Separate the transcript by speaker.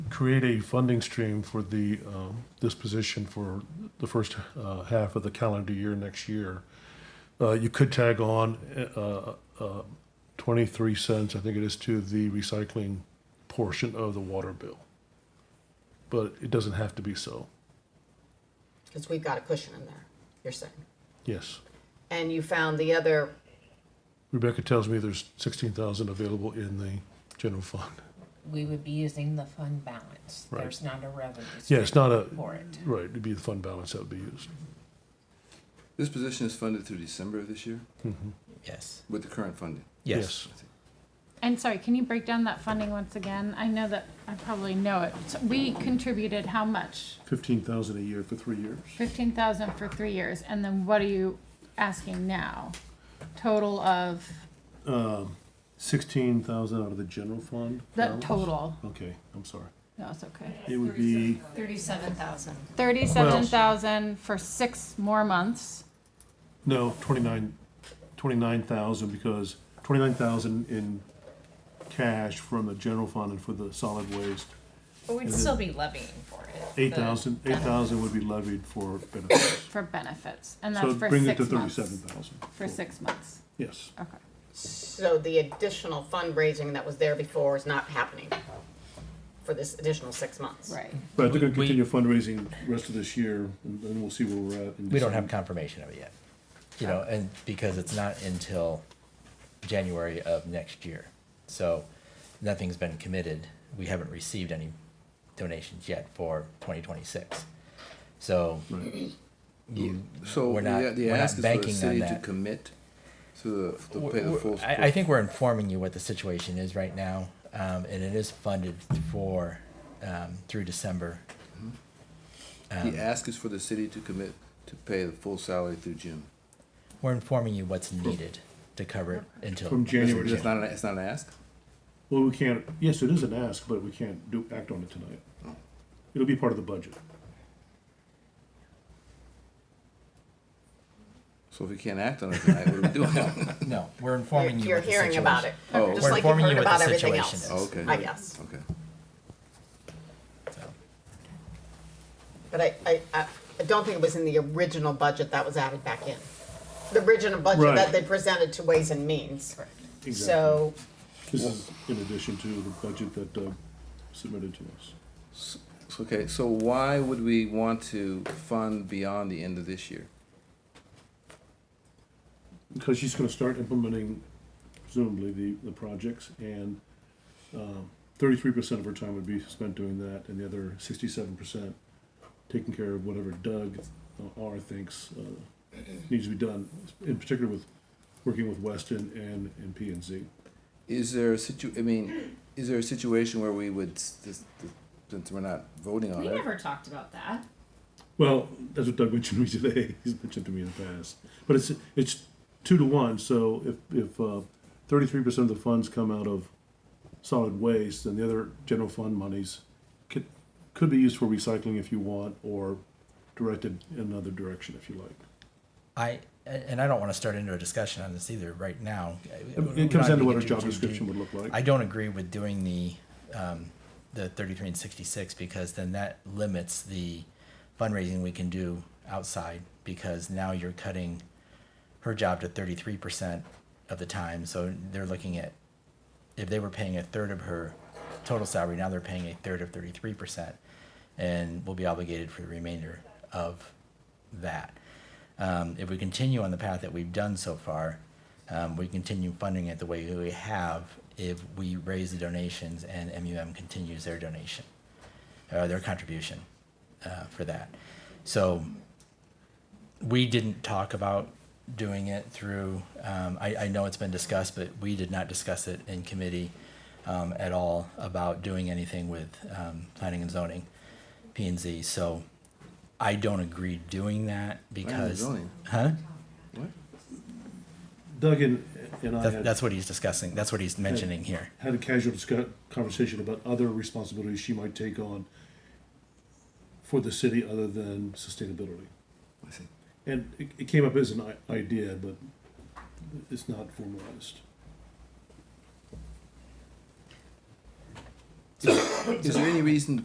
Speaker 1: create a funding stream for the, um, this position for the first uh, half of the calendar year next year. Uh, You could tag on uh, uh, 23 cents, I think it is, to the recycling portion of the water bill. But it doesn't have to be so,
Speaker 2: Because we've got a cushion in there, you're saying.
Speaker 1: yes.
Speaker 2: And you found the other,
Speaker 1: Rebecca tells me there's 16,000 available in the general fund.
Speaker 3: We would be using the fund balance.
Speaker 1: Right.
Speaker 3: There's not a revenue.
Speaker 1: Yeah, it's not a,
Speaker 3: stream For it.
Speaker 1: right, it'd be the fund balance that would be used.
Speaker 4: This position is funded through December of this year
Speaker 5: Yes.
Speaker 4: with the current funding.
Speaker 5: Yes.
Speaker 6: And sorry, can you break down that funding once again? I know that, I probably know it. So We contributed how much?
Speaker 7: 15,000 a year for three years.
Speaker 6: Fifteen thousand for three years, and then what are you asking now? Total of,
Speaker 7: 16,000 out of the general fund?
Speaker 6: the
Speaker 7: balance?
Speaker 6: total,
Speaker 7: Okay, I'm sorry.
Speaker 6: no, it's okay.
Speaker 7: It would be,
Speaker 8: Thirty-seven thousand.
Speaker 6: Thirty-seven thousand for six more months,
Speaker 7: no, 29, 29,000 because 29,000 in cash from the general fund and for the solid waste.
Speaker 8: But we'd
Speaker 7: Is it-
Speaker 8: still be levying for it. the
Speaker 7: 8,000, 8,000 would be levied for benefits.
Speaker 6: for benefits, and
Speaker 7: So
Speaker 6: that's
Speaker 7: it
Speaker 6: for
Speaker 7: brings it to
Speaker 6: six months.
Speaker 7: 37,000.
Speaker 6: For six months,
Speaker 7: Yes.
Speaker 6: okay.
Speaker 2: so the additional fundraising that was there before is not happening for this additional six months.
Speaker 6: Right.
Speaker 7: But they're going to
Speaker 5: We-
Speaker 7: continue fundraising the rest of this year and then we'll see where we're at. in
Speaker 5: We don't have
Speaker 7: December.
Speaker 5: confirmation of it yet, you know, and because it's not until January of next year. So nothing's been committed. We haven't received any donations yet for twenty twenty-six. So you,
Speaker 4: So
Speaker 5: we're not,
Speaker 4: the, the
Speaker 5: we're
Speaker 4: ask
Speaker 5: not
Speaker 4: is for the
Speaker 5: banking on
Speaker 4: city to
Speaker 5: that.
Speaker 4: commit to the, to
Speaker 5: We're-
Speaker 4: pay the
Speaker 5: we're-
Speaker 4: full.
Speaker 5: I, I think we're informing you what the situation is right now, um, and it is funded for, um, through December.
Speaker 4: The ask is for the city to commit to pay the full salary through June.
Speaker 5: We're informing you what's needed to cover it until.
Speaker 7: From January
Speaker 4: It's not, an- it's not an ask?
Speaker 7: Well, we can't, yes, it is an ask, but we can't do, act on it tonight.
Speaker 5: Oh.
Speaker 7: It'll be part of the budget.
Speaker 4: So if we can't act on it tonight, what are we doing?
Speaker 5: No, we're
Speaker 2: You're,
Speaker 5: informing you.
Speaker 2: you're
Speaker 5: what the
Speaker 2: hearing about it,
Speaker 5: situation-
Speaker 4: Oh,
Speaker 2: just
Speaker 5: We're
Speaker 2: like you've
Speaker 5: informing
Speaker 2: heard
Speaker 5: you what the
Speaker 2: about everything
Speaker 5: situation
Speaker 2: else,
Speaker 5: is.
Speaker 4: Oh, okay.
Speaker 2: I guess.
Speaker 4: Okay.
Speaker 5: so.
Speaker 2: But I, I, I I don't think it was in the original budget that was added back in. The original budget
Speaker 7: Right.
Speaker 2: that they presented to Ways and Means. So,
Speaker 7: This is in addition to the budget that Doug submitted to us.
Speaker 4: So, Okay, so why would we want to fund beyond the end of this year?
Speaker 7: Because she's gonna start implementing presumably the, the projects and um, thirty-three percent of her time would be spent doing that and the other sixty-seven percent taking care of whatever Doug uh, R thinks uh, needs to be done, in particular with working with Weston and, and P and Z.
Speaker 4: Is there a situ, I mean, is there a situation where we would, s- this- this- since we're not voting on
Speaker 8: We
Speaker 4: it?
Speaker 8: never talked about that.
Speaker 7: Well, that's what Doug mentioned to me today. He's mentioned to me in the past, but it's it's two to one. So if if thirty three percent of the funds come out of solid waste, then the other general fund monies could could be used for recycling if you want, or directed in another direction if you like.
Speaker 5: I, and I don't want to start into a discussion on this either right now.
Speaker 7: It comes down to what our
Speaker 5: We're not gonna
Speaker 7: job
Speaker 5: do-
Speaker 7: description would look like.
Speaker 5: I don't agree with doing the, um, the thirty-three and sixty-six because then that limits the fundraising we can do outside because now you're cutting her job to thirty-three percent of the time, so they're looking at, if they were paying a third of her total salary, now they're paying a third of thirty-three percent and will be obligated for the remainder of that. Um, if we continue on the path that we've done so far, um, we continue funding it the way we have if we raise the donations and MUM continues their donation, or their contribution uh, for that. So we didn't talk about doing it through, um, I, I know it's been discussed, but we did not discuss it in committee um, at all about doing anything with um, planning and zoning, P and Z. So I don't agree doing that
Speaker 4: Planning and
Speaker 5: because.
Speaker 4: zoning?
Speaker 5: Huh?
Speaker 7: Doug and and I
Speaker 5: That's,
Speaker 7: had,
Speaker 5: that's what he's discussing. That's what he's mentioning here.
Speaker 7: had a casual discuss, conversation about other responsibilities she might take on for the city other than sustainability.
Speaker 4: I see.
Speaker 7: And it, it came up as an i- idea, but it's not formalized.
Speaker 4: Is there any reason